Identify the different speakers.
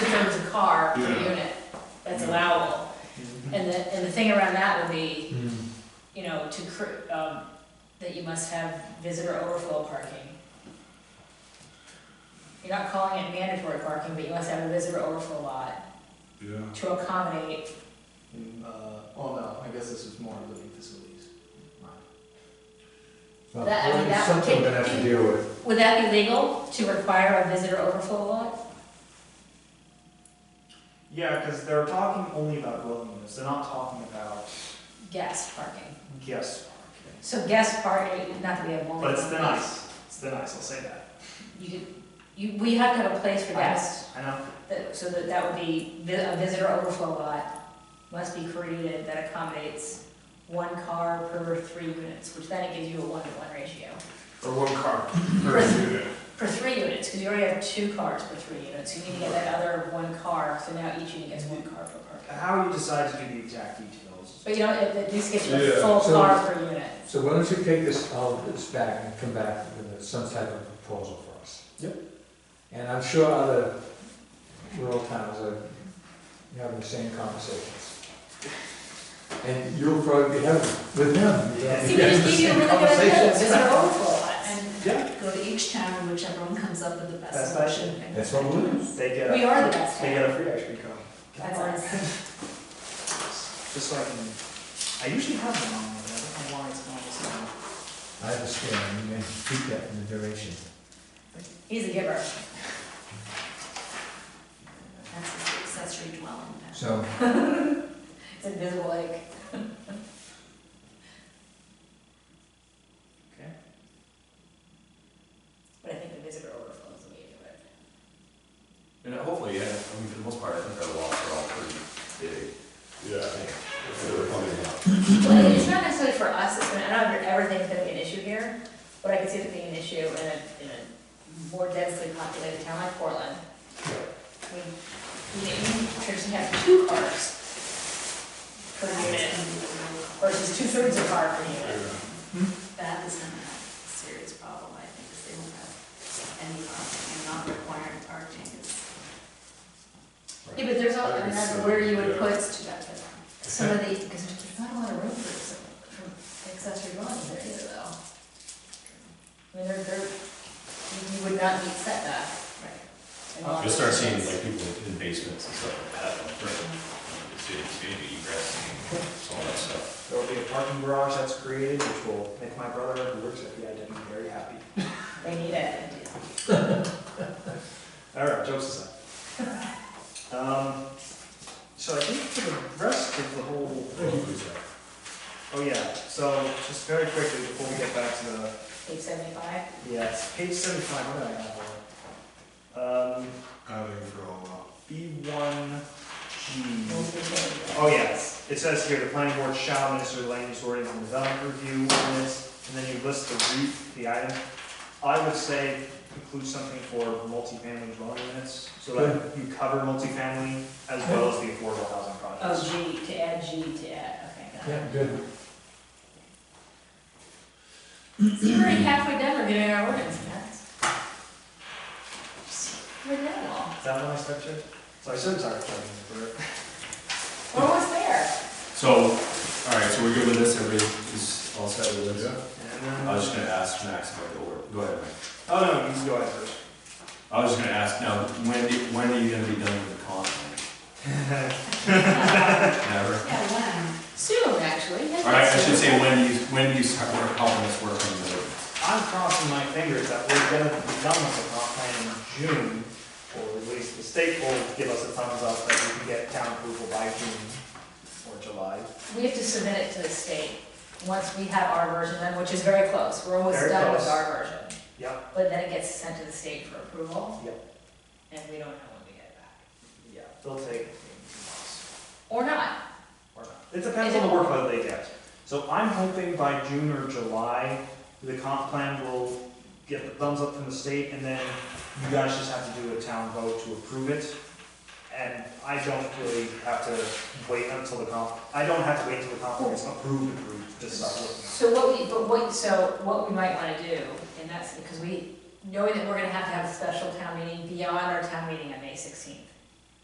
Speaker 1: car per unit that's allowable.
Speaker 2: Mm-hmm.
Speaker 1: And the, and the thing around that would be, you know, to, cr- um, that you must have visitor overflow parking. You're not calling it mandatory parking, but you must have a visitor overflow lot
Speaker 3: Yeah,
Speaker 1: to accommodate,
Speaker 2: Mm, Uh, oh no, I guess this is more living facilities.
Speaker 4: Well,
Speaker 1: That- I mean, that-
Speaker 4: Something we're gonna have to deal with.
Speaker 1: would that be legal to require a visitor overflow lot?
Speaker 2: Yeah, because they're talking only about dwelling units, they're not talking about
Speaker 1: Guest parking.
Speaker 2: guest
Speaker 1: So guest parking, not that we have more.
Speaker 2: But it's the nice, it's the nice, I'll say that.
Speaker 1: You, could- you, we have to have a place for guests,
Speaker 2: I know,
Speaker 1: that- so that that would be, vi- a visitor overflow lot must be created that accommodates one car per three units, which then it gives you a one-to-one ratio.
Speaker 3: or one car per
Speaker 1: Right.
Speaker 3: unit.
Speaker 1: For three units, because you already have two cars per three units, you need to get that other one car, so now each unit gets one car per car.
Speaker 2: how you decide to do the exact details.
Speaker 1: But you know, it at least gets you a
Speaker 3: Yeah.
Speaker 1: full
Speaker 4: So-
Speaker 1: car per unit.
Speaker 4: So why don't you take this, all of this back and come back with some type of proposal for us?
Speaker 2: Yep.
Speaker 4: And I'm sure other rural towns are having the same conversations. And you'll probably be having with them. you know?
Speaker 1: See, we just gave you a really good idea,
Speaker 2: Conversations.
Speaker 1: visitor overflow lot, and
Speaker 5: And
Speaker 2: Yeah.
Speaker 5: go to each town, whichever one comes up with the best
Speaker 2: Best
Speaker 5: solution.
Speaker 4: That's what we're doing.
Speaker 2: They get
Speaker 1: we
Speaker 2: a,
Speaker 1: are the best
Speaker 2: they
Speaker 1: town.
Speaker 2: get a free ice cream cone.
Speaker 1: That's us.
Speaker 2: Just so I can, I usually have them on, but I don't know why it's not this time.
Speaker 4: I understand, you may keep that in the duration.
Speaker 1: He's a giver.
Speaker 5: That's the accessory dwelling. then.
Speaker 4: So,
Speaker 1: It's invisible, like.
Speaker 2: Okay.
Speaker 1: But I think the visitor overflow is the way to do it.
Speaker 6: And hopefully, yeah, I mean, for the most part, I think our lots are all pretty big.
Speaker 3: Yeah.
Speaker 1: Well, it's not necessarily for us, it's gonna, I don't think everything's gonna be an issue here, but I can see it being an issue in a, in a more densely populated town like Portland. We, we traditionally have two cars per unit versus two thirds of car per unit.
Speaker 5: That is gonna have a serious problem, I think, is they won't have any parking and not requiring parking is.
Speaker 1: Yeah, but there's all,
Speaker 3: I
Speaker 1: I mean,
Speaker 3: think
Speaker 1: that's
Speaker 3: so,
Speaker 1: where you
Speaker 3: yeah.
Speaker 1: would put some of the, because there's not a lot of room for some, for accessory dwellings there either, though. I mean, they're, they're, you- you would not meet setback. in a lot of
Speaker 6: You'll start seeing
Speaker 1: places.
Speaker 6: like people in basements and stuff like that, like, right? It's, it's big, egress, and all that stuff.
Speaker 2: There will be a parking garage that's created, which will make my brother, who works at the IW, very happy.
Speaker 1: They need it.
Speaker 2: All right, jokes aside. Um, so I think for the rest of the whole, oh yeah, so just very quickly before we get back to the
Speaker 1: Page seventy-five,
Speaker 2: Yes, page seventy-five, what did I have on? Um,
Speaker 3: Adding for a lot.
Speaker 2: B one G.
Speaker 1: those are the changes.
Speaker 2: Oh, yes, it says here, the planning board shall minister land use ordinance and development review ordinance, and then you list the re, the item. I would say include something for multifamily dwelling units, so that you cover multifamily as well as the affordable housing projects.
Speaker 1: Oh, G, to add G, to add, okay, got
Speaker 4: yeah, good.
Speaker 1: it. See, we're already halfway done, we're getting our ordinance, Matt. We're done all,
Speaker 2: Is that what I structured? So I should start planning for it.
Speaker 1: we're almost there.
Speaker 6: So, all right, so we're good with this, everybody is all set with this?
Speaker 3: Yeah.
Speaker 2: And then-
Speaker 6: I was just gonna ask Max about the order, go ahead, Max.
Speaker 2: Oh, no, you can go ahead first.
Speaker 6: I was just gonna ask, now, when, do- when are you gonna be done with the con? Never?
Speaker 5: Yeah, when?
Speaker 1: Soon, actually. yeah,
Speaker 6: All right, I should
Speaker 1: soon.
Speaker 6: say, when do you, when do you start work- helping us work on the ordinance?
Speaker 2: I'm crossing my fingers that we're gonna be done with the comp plan in June, or at least the state will give us a thumbs up that we can get town approval by June or July.
Speaker 1: We have to submit it to the state, once we have our version done, which is very close, we're almost
Speaker 2: Very
Speaker 1: done with
Speaker 2: close.
Speaker 1: our version.
Speaker 2: Yep.
Speaker 1: But then it gets sent to the state for approval.
Speaker 2: Yep.
Speaker 1: And we don't know when we get it back,
Speaker 2: Yeah, they'll take maybe two months,
Speaker 1: or not,
Speaker 2: or not. It depends on the workload they get. So I'm hoping by June or July, the comp plan will get the thumbs up from the state, and then you guys just have to do a town vote to approve it. And I don't really have to wait until the comp, I don't have to wait until the comp plan is approved, approved, to start working.
Speaker 1: so what we, but what, so what we might wanna do, and that's because we, knowing that we're gonna have to have a special town meeting beyond our town meeting on May sixteenth.